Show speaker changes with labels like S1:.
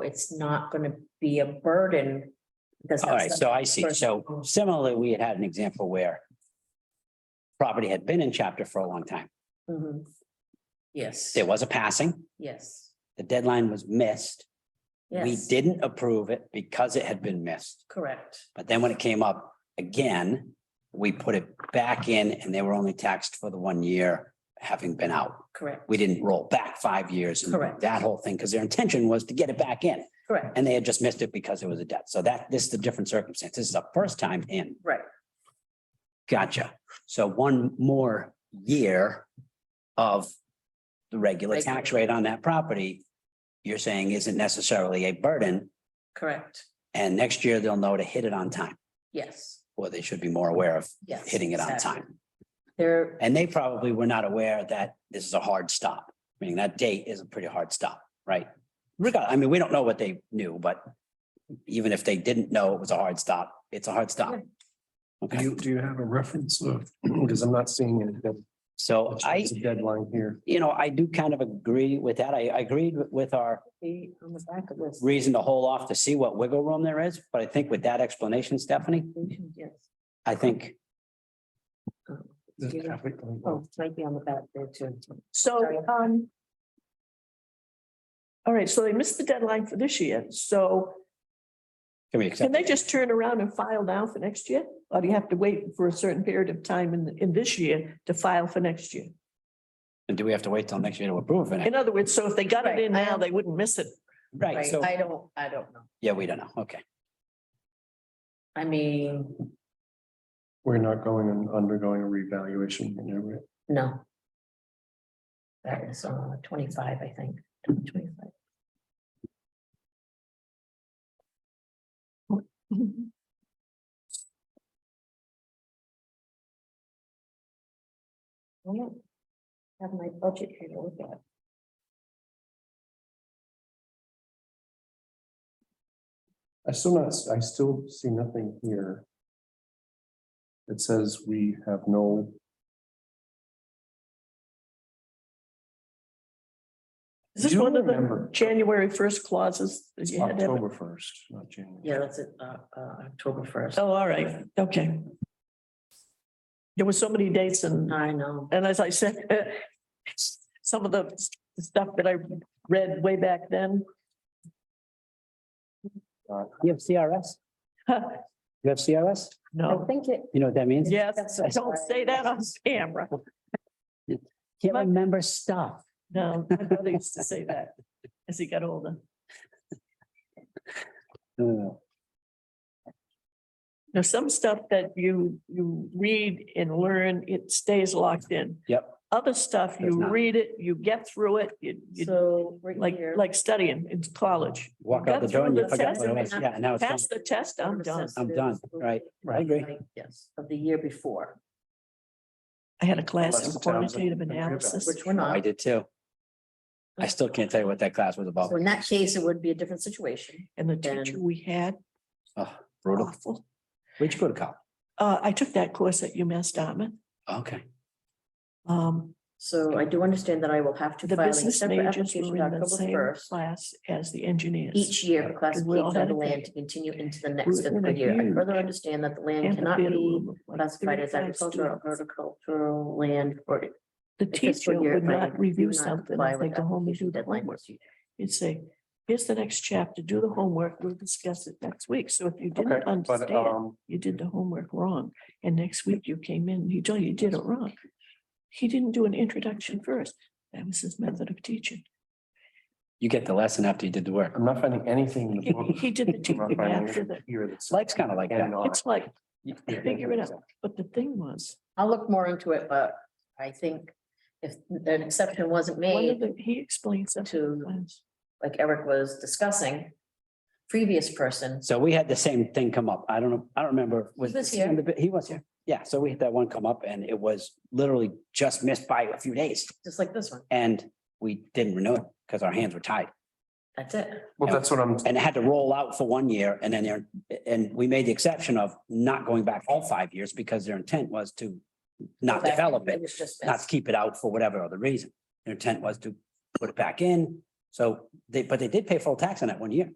S1: it's not gonna be a burden. because
S2: All right,
S1: that's
S2: so I see. So
S1: Person.
S2: similarly, we had had an example where property had been in chapter for a long time.
S1: the- Mhm. Yes,
S2: There was a passing,
S1: yes,
S2: the deadline was missed. We
S1: yes,
S2: didn't approve it because it had been missed.
S1: correct,
S2: But then when it came up again, we put it back in and they were only taxed for the one year having been out.
S1: correct,
S2: We didn't roll back five years and
S1: Correct.
S2: that whole thing, because their intention was to get it back in.
S1: correct,
S2: And they had just missed it because it was a debt. So that, this is the different circumstance. This is the first time in.
S1: right,
S2: Gotcha. So one more year of the regular
S1: Regular.
S2: tax rate on that property, you're saying isn't necessarily a burden.
S1: correct,
S2: And next year they'll know to hit it on time,
S1: yes,
S2: or they should be more aware of
S1: yes.
S2: hitting it on
S1: exactly.
S2: time.
S1: There,
S2: And they probably were not aware that this is a hard stop. I mean, that date is a pretty hard stop, right? Regard, I mean, we don't know what they knew, but even if they didn't know it was a hard stop, it's a hard stop.
S1: Yeah.
S3: Do
S2: Okay,
S3: you, do you have a reference of, because I'm not seeing anything.
S2: so I,
S3: There's a Deadline here.
S2: you know, I do kind of agree with that. I I agreed with our
S1: the- on the back of this.
S2: reason to hold off to see what wiggle room there is, but I think with that explanation, Stephanie,
S1: Yes,
S2: I think,
S3: The
S1: Yeah.
S3: traffic light.
S1: oh, it might be on the back there too. So, um,
S4: All right, so they missed the deadline for this year, so
S2: can we
S4: can
S2: accept?
S4: they just turn around and file now for next year? Or do you have to wait for a certain period of time in, in this year to file for next year?
S2: And do we have to wait till next year to approve it?
S4: In other words, so if they got it in now, they wouldn't miss it.
S2: Right,
S1: right,
S2: so,
S1: I don't, I don't know,
S2: yeah, we don't know. Okay.
S1: I mean,
S3: We're not going and undergoing a revaluation, you know, right?
S1: no. That is uh twenty-five, I think, twenty-five.
S4: Oh, mhm.
S1: I don't Have my budget here to look at.
S3: I still not, I still see nothing here. It says we have no.
S4: Is this
S3: You
S4: one of the
S3: remember.
S4: January first clauses? that you had to have?
S3: October first, not January.
S1: Yeah, that's it, uh, uh, October first.
S4: Oh, all right, okay. There were so many dates and,
S1: I know,
S4: and as I said, some of the stuff that I read way back then.
S3: Uh,
S2: You have CRS? You have
S1: I
S2: CRS?
S4: No,
S1: think it,
S2: You know what that means?
S4: yes, don't say that on camera.
S2: Can't remember stuff.
S4: No, my brother used to say that as he got older.
S2: Uh,
S4: There's some stuff that you, you read and learn, it stays locked in.
S2: Yep.
S4: Other stuff,
S2: Does
S4: you
S2: not.
S4: read it, you get through it, you, you-
S1: so right
S4: like,
S1: here.
S4: like studying in college.
S2: Walk out the door and you forget what it was. Yeah, now it's done.
S4: Pass the test, I'm done.
S2: I'm done, right. I agree.
S1: Like, Yes, of the year before,
S4: I had a class in
S3: Unless the town's a-
S4: quantitative
S3: a good
S4: analysis.
S1: which we're
S2: Oh, I
S1: not.
S2: did too. I still can't tell you what that class was about.
S1: So in that case, it would be a different situation.
S4: And the teacher
S1: Then-
S4: we had,
S2: Oh, Brutal.
S4: awful.
S2: Where'd you go to college?
S4: Uh, I took that course at UMass Dartmouth.
S2: Okay.
S4: Um,
S1: So I do understand that I will have to
S4: the
S1: file a
S4: business
S1: separate
S4: majors were
S1: application
S4: in the
S1: October
S4: same
S1: first.
S4: class as the engineers.
S1: Each year for
S4: Because we
S1: classification
S4: all
S1: of
S4: had
S1: the
S4: a
S1: land
S4: thing.
S1: to continue into the
S4: We
S1: next
S4: were in
S1: fiscal
S4: a
S1: year. I further
S4: huge
S1: understand that the land cannot be
S4: amphitheater room of like
S1: classified as
S4: 35
S1: agricultural,
S4: students.
S1: horticultural land or. the
S4: The
S1: fiscal
S4: teacher
S1: year
S4: would
S1: if I
S4: not
S1: do
S4: review
S1: not
S4: something,
S1: comply
S4: if
S1: with
S4: they go home and
S1: application
S4: do the
S1: deadline
S4: homework.
S1: this year.
S4: You'd say, here's the next chapter, do the homework, we'll discuss it next week. So if you
S3: Okay,
S4: didn't
S3: but
S4: understand,
S3: um,
S4: you did the homework wrong, and next week you came in, you told you did it wrong. He didn't do an introduction first. That was his method of teaching.
S2: You get the lesson after you did the work.
S3: I'm not finding anything in the
S4: He,
S3: book.
S4: he did the
S3: I'm not
S4: teaching
S3: finding
S4: after
S3: anything
S4: that.
S3: here that's-
S2: Life's kind of like that.
S3: And on.
S4: It's like,
S3: You-
S4: figure it out. but the thing was,
S1: I'll look more into it, but I think if an exception wasn't
S4: one
S1: made,
S4: of the, he explained something.
S1: To-
S4: to us.
S1: like Eric was discussing, previous person,
S2: So we had the same thing come up. I don't know, I don't remember. Was
S1: He was
S2: this on
S1: here.
S2: the- He was here. Yeah, so we had that one come up and it was literally just missed by a few days
S1: just like this one,
S2: and we didn't renew it because our hands were tied.
S1: that's it.
S3: Well, that's what I'm,
S2: And it had to roll out for one year and then there, and we made the exception of not going back all five years because their intent was to not
S1: Go back.
S2: develop it,
S1: was just
S2: not to keep it out for whatever other reason. Their intent was to put it back in So they, but they did pay full tax on that one year.